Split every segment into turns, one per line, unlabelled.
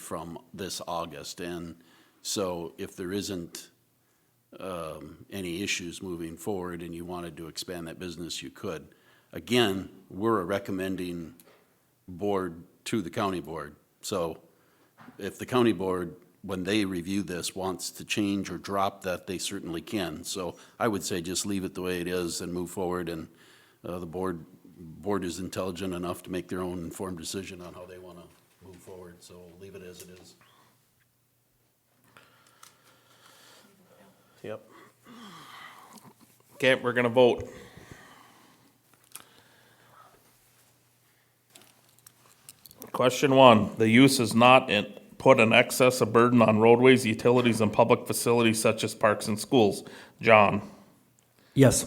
from this August. And so if there isn't um, any issues moving forward and you wanted to expand that business, you could. Again, we're a recommending board to the county board. So if the county board, when they review this, wants to change or drop that, they certainly can. So I would say just leave it the way it is and move forward, and uh, the board, board is intelligent enough to make their own informed decision on how they want to move forward, so leave it as it is.
Yep. Okay, we're gonna vote. Question one, the use is not in, put an excess of burden on roadways, utilities, and public facilities such as parks and schools. John,
Yes.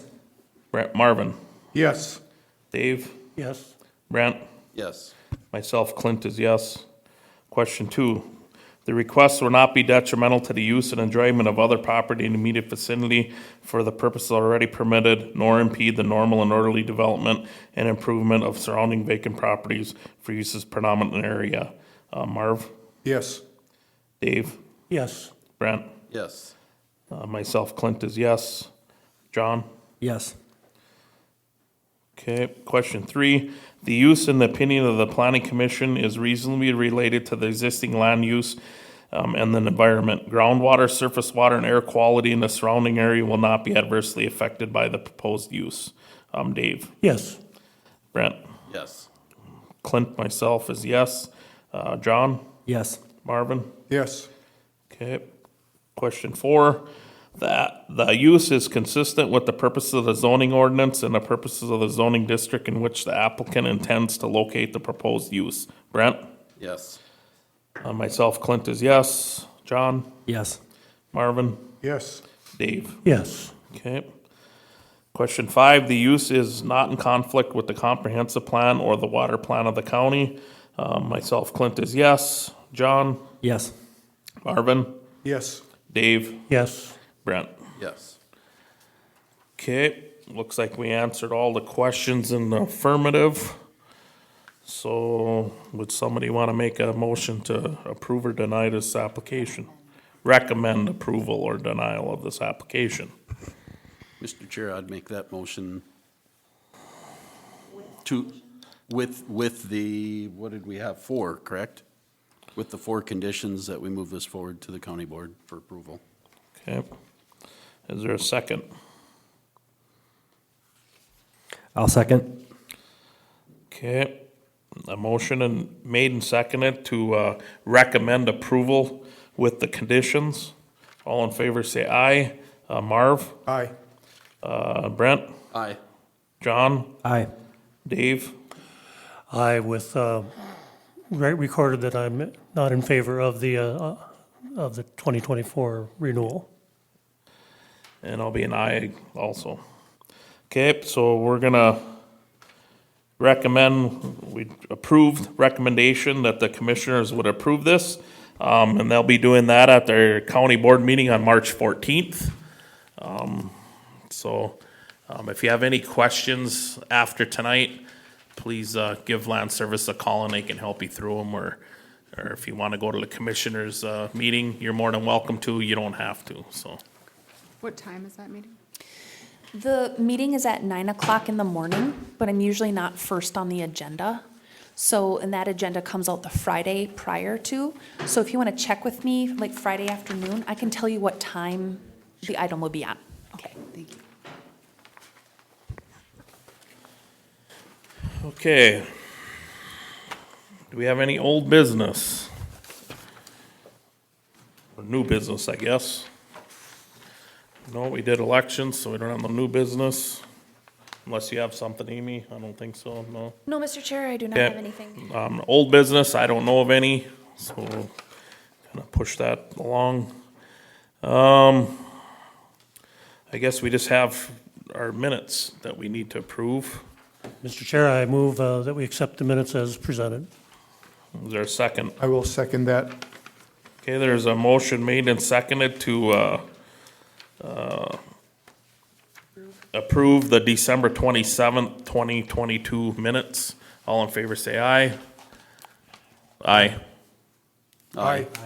Brent, Marvin,
Yes.
Dave,
Yes.
Brent,
Yes,
myself, Clint is yes. Question two, the request will not be detrimental to the use and enjoyment of other property in immediate vicinity for the purposes already permitted, nor impede the normal and orderly development and improvement of surrounding vacant properties for uses predominant in the area. Uh, Marv,
Yes.
Dave,
Yes.
Brent,
yes,
uh, myself, Clint is yes. John?
Yes.
Okay, question three, the use and the opinion of the planning commission is reasonably related to the existing land use um, and the environment. Groundwater, surface water, and air quality in the surrounding area will not be adversely affected by the proposed use. Um, Dave,
Yes.
Brent,
yes,
Clint, myself is yes. Uh, John,
Yes.
Marvin?
Yes.
Okay, question four, that the use is consistent with the purposes of the zoning ordinance and the purposes of the zoning district in which the applicant intends to locate the proposed use. Brent?
yes,
Uh, Myself, Clint is yes. John?
Yes.
Marvin?
Yes.
Dave?
Yes.
Okay. Question five, the use is not in conflict with the comprehensive plan or the water plan of the county. Uh, Myself, Clint is yes. John?
Yes.
Marvin?
Yes.
Dave?
Yes.
Brent?
yes.
Okay, looks like we answered all the questions in the affirmative. So would somebody want to make a motion to approve or deny this application? Recommend approval or denial of this application?
Mr. Chair, I'd make that motion to, with, with the, what did we have, four, correct? With the four conditions that we move this forward to the county board for approval.
Okay. Is there a second?
I'll second.
Okay, a motion and made and seconded to uh, recommend approval with the conditions. All in favor, say aye. Uh, Marv,
Aye.
uh, Brent,
Aye.
John,
Aye.
Dave?
I with, uh, re- recorded that I'm not in favor of the, uh, of the 2024 renewal.
And I'll be an aye also. Okay, so we're gonna recommend, we approved recommendation that the commissioners would approve this. Um, and they'll be doing that at their county board meeting on March fourteenth. Um, so, um, if you have any questions after tonight, please, uh, give Land Service a call and they can help you through them or, or if you wanna go to the commissioners, uh, meeting, you're more than welcome to, you don't have to, so.
What time is that meeting?
The meeting is at nine o'clock in the morning, but I'm usually not first on the agenda. So, and that agenda comes out the Friday prior to. So if you want to check with me, like Friday afternoon, I can tell you what time the item will be on. Okay.
Thank you.
Okay. Do we have any old business? Or new business, I guess? No, we did elections, so we don't have no new business. Unless you have something, Amy, I don't think so, no.
No, Mr. Chair, I do not
Yeah.
have anything.
Um, old business, I don't know of any, so gonna push that along. Um, I guess we just have our minutes that we need to approve.
Mr. Chair, I move uh, that we accept the minutes as presented.
Is there a second?
I will second that.
Okay, there's a motion made and seconded to, uh, uh, approve the December twenty-seventh, twenty twenty-two minutes. All in favor, say aye. Aye.
Aye.